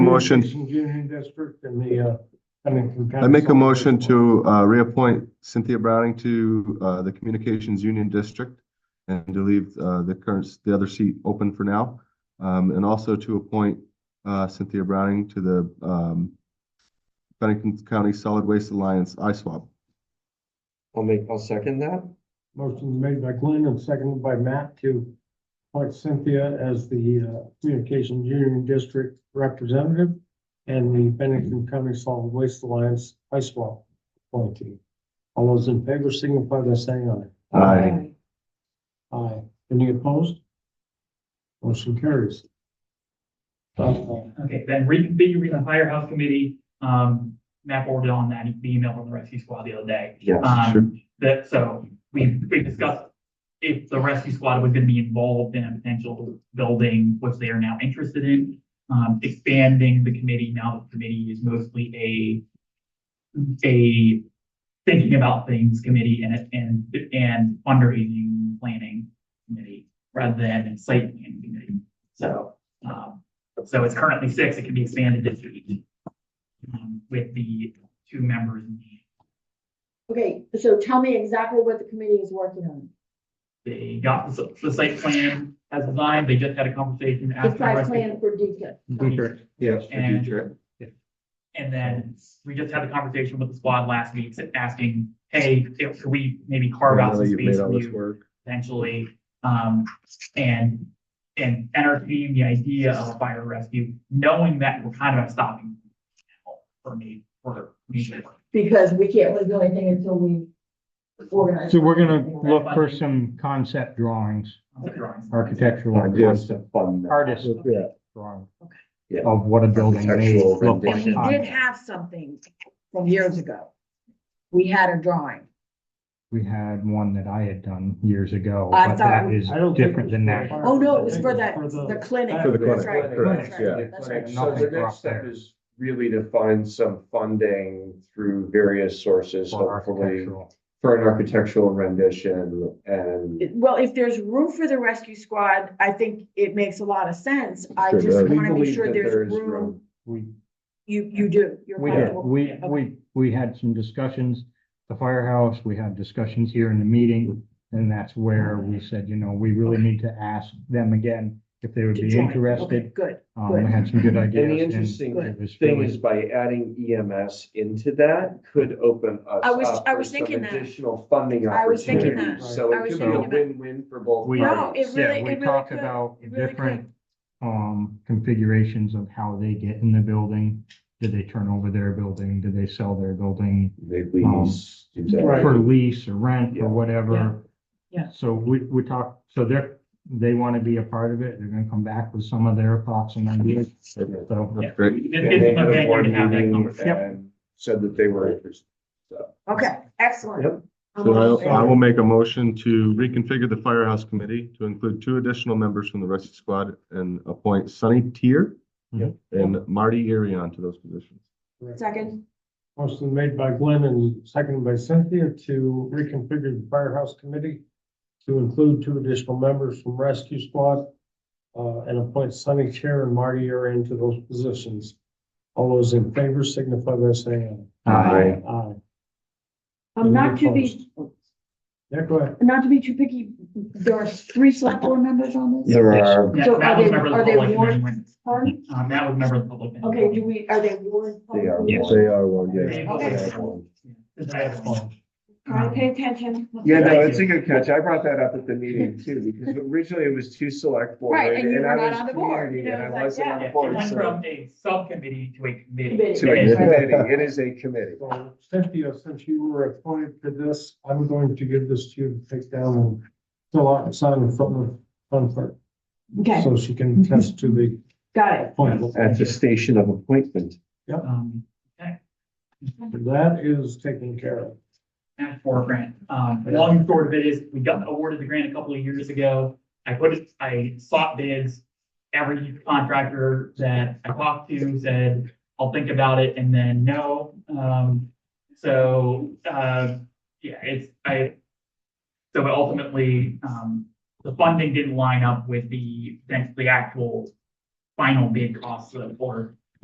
motion- Transportation Union District and the, uh, Huntington County. I make a motion to uh, reappoint Cynthia Browning to uh, the Communications Union District and to leave uh, the current, the other seat open for now. Um, And also to appoint uh, Cynthia Browning to the um, Bennington County Solid Waste Alliance ISWAP. I'll make, I'll second that. Motion made by Glenn and seconded by Matt to appoint Cynthia as the, uh, Communications Union District Representative and the Bennington County Solid Waste Alliance Ice Wall appointee. All those in favor signify by saying aye. Aye. Aye. Any opposed? Motion carries. Uh, Okay, then reconfiguring the firehouse committee, um, Matt forwarded on that, the email from the rescue squad the other day. Yeah, sure. Um, that, so we, we discussed if the rescue squad was gonna be involved in a potential building, which they are now interested in. Um, expanding the committee, now the committee is mostly a, a thinking about things committee and, and, and fundraising, planning committee, rather than site planning committee. So, um, so it's currently six, it can be expanded to eight. um, With the two members in the Okay, so tell me exactly what the committee is working on. They got the, s- the site plan as designed, they just had a conversation The after. site rescue- plan for detail. Mm-hmm. Future, yes, for And- future. And then we just had a conversation with the squad last week, sa- asking, hey, if could we maybe carve out some Now that you've made space all for this you work. potentially, um, and, and entertaining the idea of fire rescue, knowing that we're kind of at a stopping point for me, for me. Because we can't really do anything until we organize. So we're gonna look for some concept drawings, architectural. Ideas concept to fund that. Artist. Yeah. drawings Yeah. Of what a building may Architectural look And like. we did have something from years ago. We had a drawing. We had one that I had done years ago, I but thought that we- is I don't think different it than was that. for Oh, no, it was for I that, think it was for the- the clinic. For the That's clinic, right, correct, that's yeah. right, that's right. So the Nothing next step up there. is really to find some funding through various sources, for hopefully, architectural. for an architectural rendition and. Well, if there's room for the rescue squad, I think it makes a lot of sense. I Sure just does. We wanna make believe sure that there there's is room. We, You, you do, you're we did, comfortable. we, we, we had some discussions, the firehouse, we had discussions here in the meeting. And that's where we said, you know, we really need to ask them again if they would to be join. interested. Okay, Good. Um, we had some good ideas. And the interesting it was thing really- is by adding EMS into that could open us I was- up I for was some thinking that. Additional funding I was that. thinking opportunities, so I it was could be a thinking that. win-win for both We- No, parties. it Yeah, really, we it really talked could. about It really different, um, configurations of how they get in the building. Do they turn over their building? Do they sell their building They please do that. Right. for lease or rent Yeah. or whatever? Yeah, yeah. So we, we talked, so they're, they want to be a part of it. They're gonna come back with some of their thoughts and ideas. So, Yeah. Great. It's And they it's had a okay board to have that meeting conversation. and said that they were interested. Okay, excellent. Yep. I'm So all in I I will favor. make a motion to reconfigure the firehouse committee to include two additional members from the rescue squad and appoint Sunny Tier Yep. and Marty Arion to those positions. Second, Motion made by Glenn and seconded by Cynthia to reconfigure the firehouse committee to include two additional members from rescue squad uh, and appoint Sunny Chair and Marty Arian to those positions. All those in favor signify by saying uh, aye. Aye. um, not to be, Yeah, go ahead. not to be too picky, there are three select board members on this? There are. Yeah, So Matt are was they- member of the are they public and warned? then- Pardon? Um, Matt was member of the public. and- Okay, do we, are they warned? They are. Yeah. They are one, yes. Okay. Because I have one. All right, pay attention. Yeah, no, Thank it's a you. good catch. I brought that up at the meeting too, because originally it was two select board. Right, and you I were not was on the board, community, you know, And I it was like, wasn't on Yeah, the It board, went so. from a subcommittee to a committee. Committee. To a And- committee, it is a committee. So Cynthia, since you were appointed to this, I'm going to give this to you to take down and fill out and sign in front of, front clerk, Okay, so she can attest to the got it. appointment. At the station of appointment. Um, okay, That is taken care of. Matt for a grant. Um, the long and short of it is, we got awarded the grant a couple of years ago. I put, it- I sought bids. Every contractor that I talked to said, I'll think about it, and then no. Um, so, uh, yeah, it's, I, so ultimately, um, the funding didn't line up with the, the actual final bid costs of, or